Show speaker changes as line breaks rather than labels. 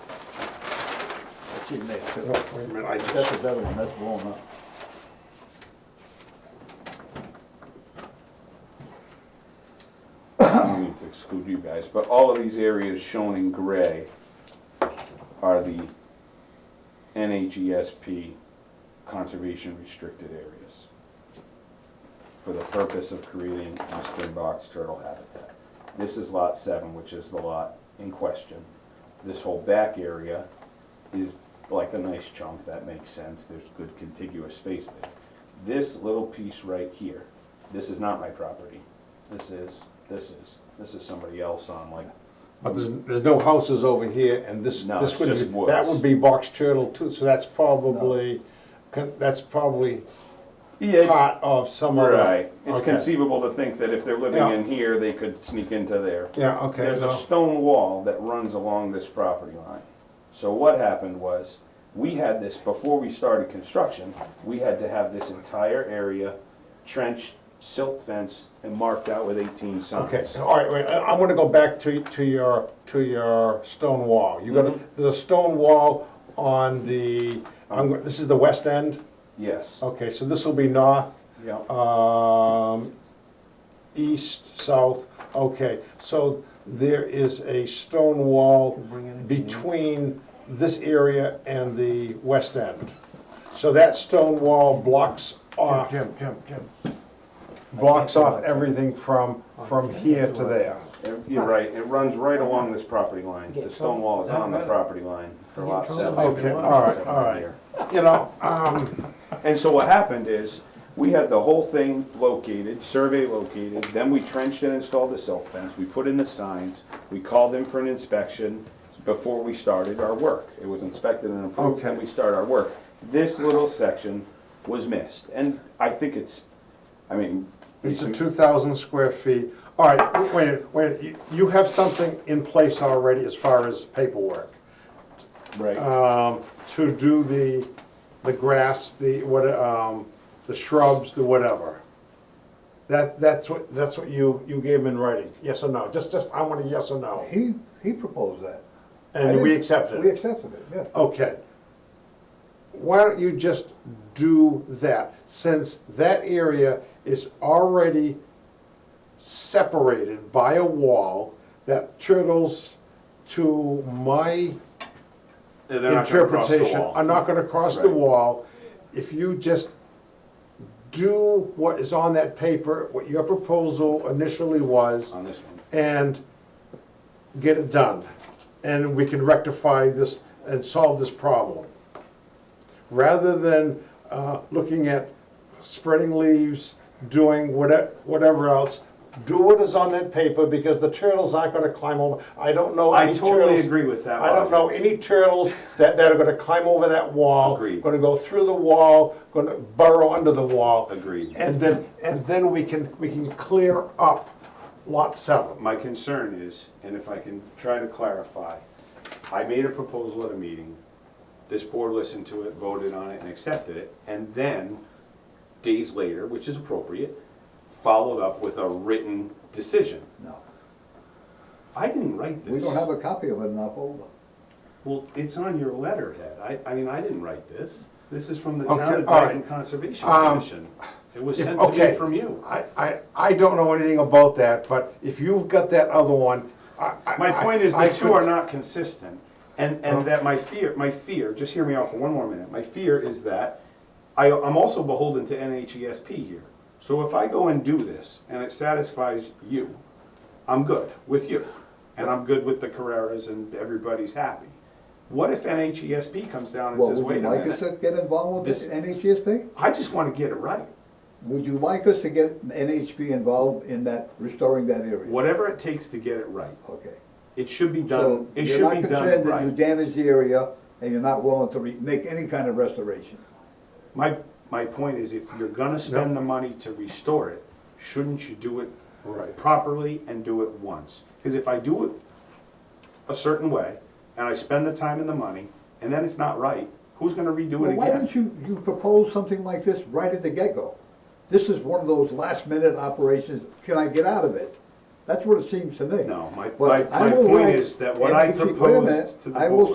she's next to it.
Oh,
I
wait.
mean, I
That's
just,
another one, that's blown up.
I need to exclude you guys, but all of these areas shown in gray are the NHESP conservation restricted areas for the purpose of creating eastern box turtle habitat. This is lot seven, which is the lot in question. This whole back area is like a nice chunk, that makes sense, there's good contiguous space there. This little piece right here, this is not my property. This is, this is, this is somebody else on like,
But there's, there's no houses over here, and this,
No,
this
it's
would
just
be, that
woods.
would be box turtle too, so that's probably, con- that's probably
yeah, it's,
part of some other.
right. It's
uh, Okay.
conceivable to think that if they're living
Yeah.
in here, they could sneak into there.
Yeah, okay,
There's a
no.
stone wall that runs along this property line. So what happened was, we had this, before we started construction, we had to have this entire area trenched, silt fenced, and marked out with eighteen signs.
Okay, so, all right, wait, I- I'm gonna go back to, to your, to your stone wall. You got,
Mm-hmm.
a- there's a stone wall on the, I'm, go- this is the west end?
Yes.
Okay, so this will be north,
Yeah.
um, east, south, okay. So there is a stone wall between this area and the west end. So that stone wall blocks off,
Jim, Jim, Jim.
blocks off everything from, from here to there.
And You're right, it runs right along this property line. The stone wall is on the property line for lot seven.
Okay, all right, all right. You know,
And so what happened is, we had the whole thing located, survey located, then we trenched and installed the silt fence, we put in the signs, we called in for an inspection before we started our work. It was inspected and approved, and
Okay.
we started our work. This little section was missed, and I think it's, I mean.
It's a
we-
two thousand square feet. All right, wait, wait, you- you have something in place already as far as paperwork
Right,
um, to do the, the grass, the what, um, the shrubs, the whatever. That, that's what, that's what you, you gave him in writing, yes or no? Just, just, I want a yes or no.
He, he proposed that. I
And we
didn't-
accepted
We
it.
accepted it, yes.
Okay. Why don't you just do that, since that area is already separated by a wall that turtles, to my
They're not gonna cross the
interpretation,
wall.
are not gonna cross the
Right.
wall. If you just do what is on that paper, what your proposal initially was,
On this one.
and get it done. And we can rectify this and solve this problem. Rather than uh, looking at spreading leaves, doing whate- whatever else, do what is on that paper because the turtles aren't gonna climb over. I don't know
I
any turtles.
totally agree with that,
I don't
Roger.
know any turtles that, that are gonna climb over that wall.
Agreed.
Gonna go through the wall, gonna burrow under the wall.
Agreed.
And then, and then we can, we can clear up lot seven.
My concern is, and if I can try to clarify, I made a proposal at a meeting. This board listened to it, voted on it, and accepted it, and then, days later, which is appropriate, followed up with a written decision.
No,
I didn't write this.
we don't have a copy of it in our folder.
Well, it's on your letterhead. I, I mean, I didn't write this. This is from the
Okay,
Town of
all right. Um,
Dyton Conservation Commission. It was
If-
sent to
okay.
me from you.
I, I, I don't know anything about that, but if you've got that other one, I, I.
My point is,
I
the two
could-
are not consistent, and,
Oh.
and that my fear, my fear, just hear me out for one more minute, my fear is that I, I'm also beholden to NHESP here. So if I go and do this, and it satisfies you, I'm good with you, and I'm good with the Carreras, and everybody's happy. What if NHESP comes down and
Well,
says,
would
wait
you
a
like us to
minute,
get involved with
This-
the NHSP?
I just wanna get it right.
Would you like us to get NHP involved in that, restoring that area?
Whatever it takes to get it right,
Okay.
it should be
So
done, it
you're
should
not
be done
concerned that you
right.
damaged the area and you're not willing to re- make any kind of restoration.
My, my point is, if you're gonna spend the money to restore it, shouldn't you do
Right.
it properly and do it once? Because if I do it a certain way, and I spend the time and the money, and then it's not right, who's gonna redo
Well,
it
why don't
again?
you, you propose something like this right at the get-go? This is one of those last-minute operations, can I get out of it? That's what it seems to me.
No, my-
But
my-
I
my
will
point
write-
is that what
and
I
if you- wait a
proposed
minute,
to the
I will
board-